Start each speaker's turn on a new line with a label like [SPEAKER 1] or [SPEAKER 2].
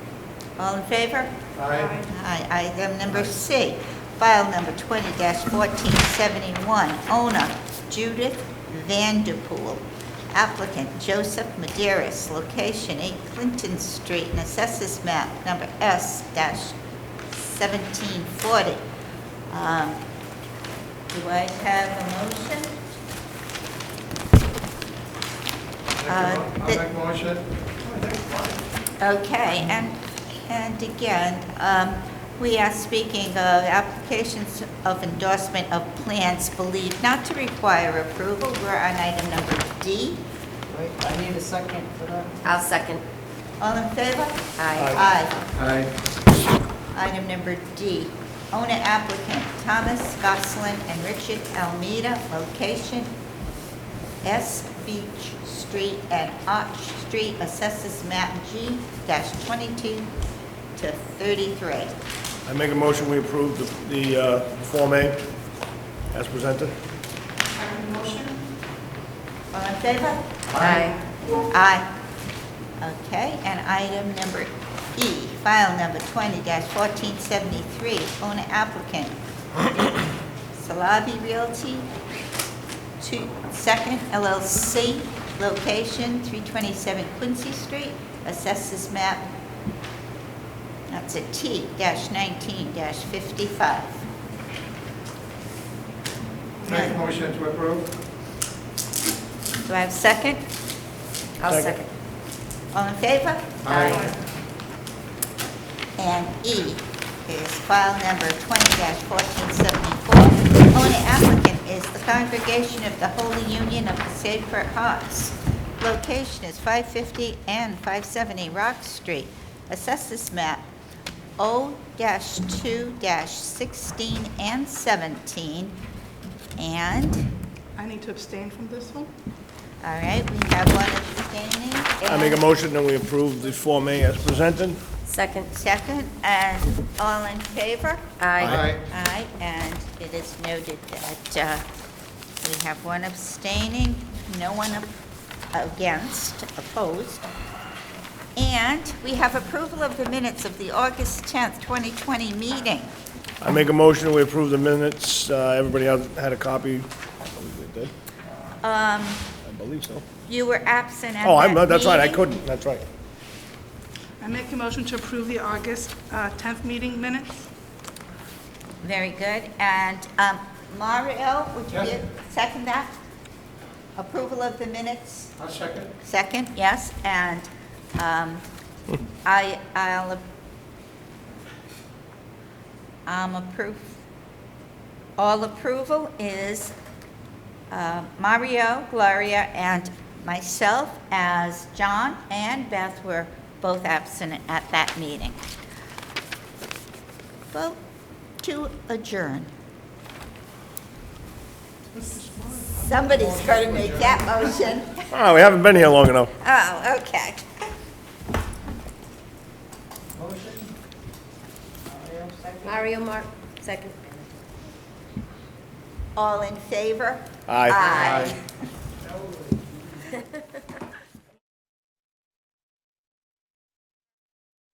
[SPEAKER 1] All in favor?
[SPEAKER 2] Aye.
[SPEAKER 1] Aye. Item number C, file number 20-1471, owner Judith Vanderpool, applicant Joseph Maderis, location 8 Clinton Street, and assessors map number S-1740. Um, Do I have a motion? Uh,
[SPEAKER 2] I'll
[SPEAKER 1] the-
[SPEAKER 2] make motion.
[SPEAKER 1] Okay, and, and again, um, we are speaking of applications of endorsement of plans believed not to require approval. We're on item number D.
[SPEAKER 3] Wait, I need a second for that.
[SPEAKER 4] I'll second.
[SPEAKER 1] All in favor?
[SPEAKER 2] Aye.
[SPEAKER 1] Aye.
[SPEAKER 2] Aye.
[SPEAKER 1] Item number D, owner applicant Thomas Gosselin and Richard Almeida, location S Beach Street and Arch Street, assesses map G twenty-two to thirty-three.
[SPEAKER 5] I make a motion, we approve the- the uh, Form A as presented.
[SPEAKER 1] All in favor?
[SPEAKER 4] Aye.
[SPEAKER 1] Aye. Okay, and item number E, file number twenty fourteen seventy-three, owner applicant, Salavi Realty, two, second LLC, location three twenty-seven Quincy Street, assesses map, that's a T dash nineteen dash fifty-five.
[SPEAKER 2] Make motion to approve.
[SPEAKER 1] Do I have a second?
[SPEAKER 4] I'll
[SPEAKER 5] Second.
[SPEAKER 4] second.
[SPEAKER 1] All in favor?
[SPEAKER 2] Aye.
[SPEAKER 1] And E is file number twenty fourteen seventy-four. Only applicant is the Congregation of the Holy Union of the Sacred Hearts. Location is five fifty and five seventy Rock Street. Assessors map O two sixteen and seventeen. And,
[SPEAKER 6] I need to abstain from this one?
[SPEAKER 1] all right, we have one abstaining.
[SPEAKER 5] I make a
[SPEAKER 1] and-
[SPEAKER 5] motion, and we approve the Form A as presented.
[SPEAKER 4] Second.
[SPEAKER 1] Second, and all in favor?
[SPEAKER 4] Aye.
[SPEAKER 1] Aye, and it is noted that uh, we have one abstaining, no one ap- against, opposed. And we have approval of the minutes of the August 10th, 2020 meeting.
[SPEAKER 5] I make a motion, we approve the minutes. Uh, Everybody had had a copy. I believe they did.
[SPEAKER 1] Um,
[SPEAKER 5] I believe so.
[SPEAKER 1] You were absent at
[SPEAKER 5] Oh, I'm,
[SPEAKER 1] that
[SPEAKER 5] that's right, I
[SPEAKER 1] meeting.
[SPEAKER 5] couldn't, that's right.
[SPEAKER 6] I make a motion to approve the August uh, 10th meeting minutes.
[SPEAKER 1] Very good, and um, Mario, would you
[SPEAKER 2] Yes.
[SPEAKER 1] give- second that? Approval of the minutes?
[SPEAKER 2] I'll second.
[SPEAKER 1] Second, yes, and um, I, I'll, I'm um, approve, all approval is uh, Mario, Gloria, and myself, as John and Beth were both absent at that meeting. Vote to adjourn. Somebody's going to make that motion.
[SPEAKER 5] Ah, we haven't been here long enough.
[SPEAKER 1] Oh, okay.
[SPEAKER 3] Motion? Mario, second?
[SPEAKER 4] Mario Mark, second.
[SPEAKER 1] All in favor?
[SPEAKER 5] Aye.
[SPEAKER 1] Aye.